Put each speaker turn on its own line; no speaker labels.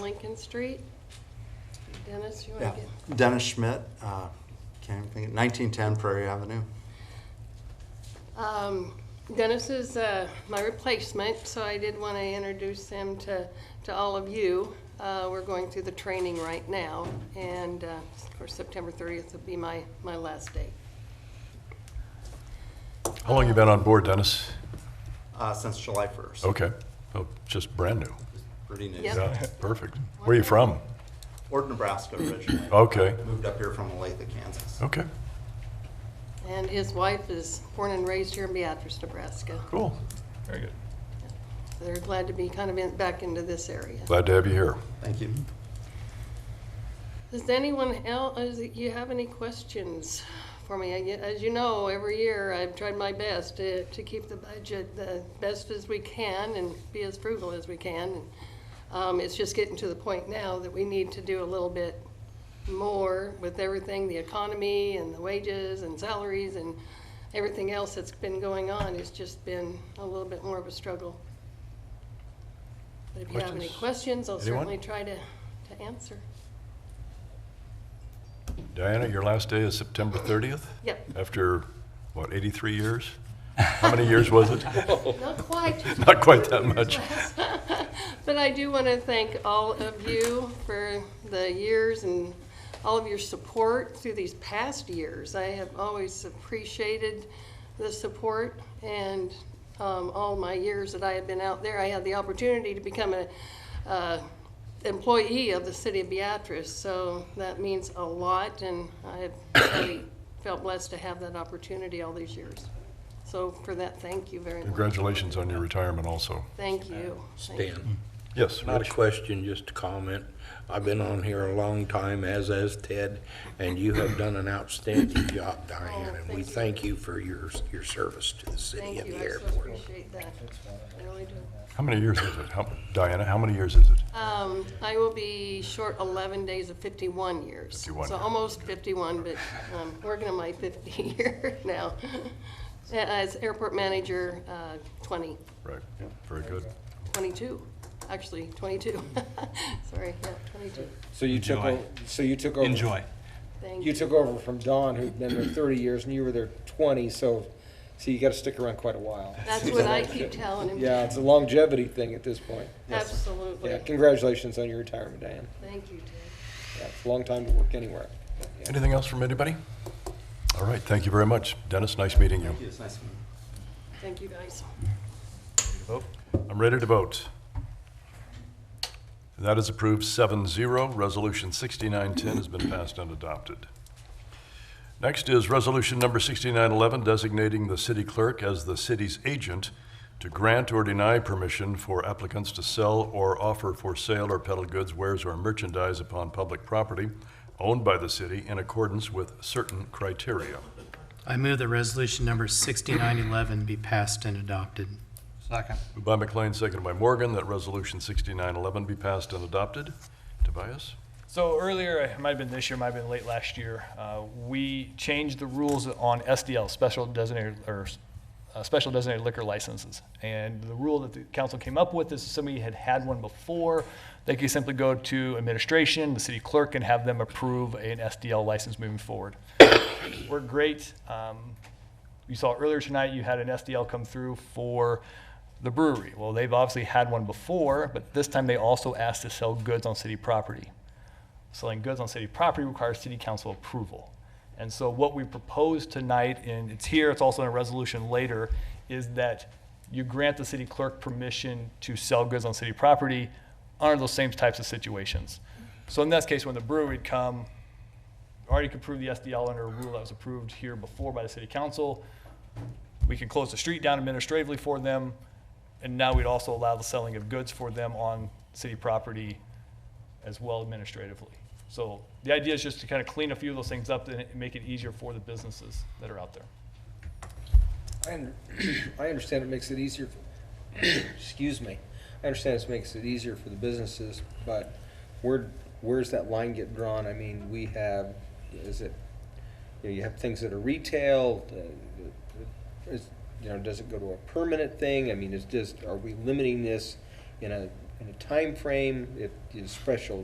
Lincoln Street. Dennis, you
Yeah,
want to get?
Dennis Schmidt, uh, can't even think, nineteen ten Prairie Avenue.
Um, Dennis is uh, my replacement, so I did want to introduce him to, to all of you. Uh, We're going through the training right now, and uh, of course, September 30th will be my, my last day.
How long you been on board, Dennis?
Uh, since July first.
Okay, oh, just brand new.
Pretty new.
Yep.
Yeah, perfect. Where are you from?
Ord, Nebraska originally.
Okay,
Moved up here from Olathe, Kansas.
okay,
And his wife is born and raised here in Beatrice, Nebraska.
cool.
Very good.
They're glad to be kind of in- back into this area.
Glad to have you here.
Thank you.
Does anyone else, does it- you have any questions for me? I get- As you know, every year I've tried my best to, to keep the budget the best as we can and be as frugal as we can. Um, it's just getting to the point now that we need to do a little bit more with everything, the economy and the wages and salaries and everything else that's been going on. It's just been a little bit more of a struggle. But if you have any
Questions?
questions, I'll
Anyone?
certainly try to, to answer.
Diana, your last day is September 30th?
Yep.
After, what, 83 years? How many years was it?
Not quite.
Not quite that much.
But I do want to thank all of you for the years and all of your support through these past years. I have always appreciated the support and um, all my years that I have been out there. I had the opportunity to become a uh, employee of the city of Beatrice, so that means a lot, and I have really felt blessed to have that opportunity all these years. So for that, thank you very much.
Congratulations on your retirement also.
Thank you. Thank you.
Stan,
Yes,
not a
Rich?
question, just a comment. I've been on here a long time, as has Ted, and you have done an outstanding
Oh,
job, Diane, and we thank you for your, your service to the city
Thank
and
you,
the
I so
airport.
appreciate that. I really do.
How many years is it? How- Diana, how many years is it?
Um, I will be short 11 days of 51 years.
51.
So almost 51, but um, I'm working on my 50 year now. As airport manager, uh, 20,
Right, very good.
22, actually, 22. Sorry, yeah, 22.
So you took,
Enjoy.
o- so you took over.
Enjoy.
Thank
You
you.
took over from Dawn, who'd been there thirty years, and you were there twenty, so, so you gotta stick around quite a while.
That's what I keep telling him.
Yeah, it's a longevity thing at this point. Yeah,
Absolutely.
congratulations on your retirement, Diane.
Thank you, Ted.
Yeah, it's a long time to work anywhere.
Anything else from anybody? All right, thank you very much. Dennis, nice meeting you.
Thank you. It's nice to meet you.
Thank you, guys.
I'm ready to vote. That is approved 7-0. Resolution 6910 has been passed and adopted. Next is Resolution Number 6911, designating the city clerk as the city's agent to grant or deny permission for applicants to sell or offer for sale or peddle goods, wares, or merchandise upon public property owned by the city in accordance with certain criteria.
I move that resolution number 6911 be passed and adopted.
Moved by McLean, seconded by Morgan, that Resolution 6911 be passed and adopted. Tobias?
So earlier, it might have been this year, might have been late last year, uh, we changed the rules on SDL, special designated, or uh, special designated liquor licenses. And the rule that the council came up with is if somebody had had one before, they could simply go to administration, the city clerk, and have them approve an SDL license moving forward. We're great. Um, you saw earlier tonight, you had an SDL come through for the brewery. Well, they've obviously had one before, but this time they also asked to sell goods on city property. Selling goods on city property requires city council approval. And so what we propose tonight, and it's here, it's also in a resolution later, is that you grant the city clerk permission to sell goods on city property under those same types of situations. So in this case, when the brewery would come, already could approve the SDL under a rule that was approved here before by the city council. We could close the street down administratively for them, and now we'd also allow the selling of goods for them on city property as well administratively. So the idea is just to kind of clean a few of those things up and make it easier for the businesses that are out there.
I, un- I understand it makes it easier, excuse me, I understand this makes it easier for the businesses, but where, where's that line get drawn? I mean, we have, is it, you know, you have things that are retail, uh, is, you know, does it go to a permanent thing? I mean, is just, are we limiting this in a, and a time frame. it is special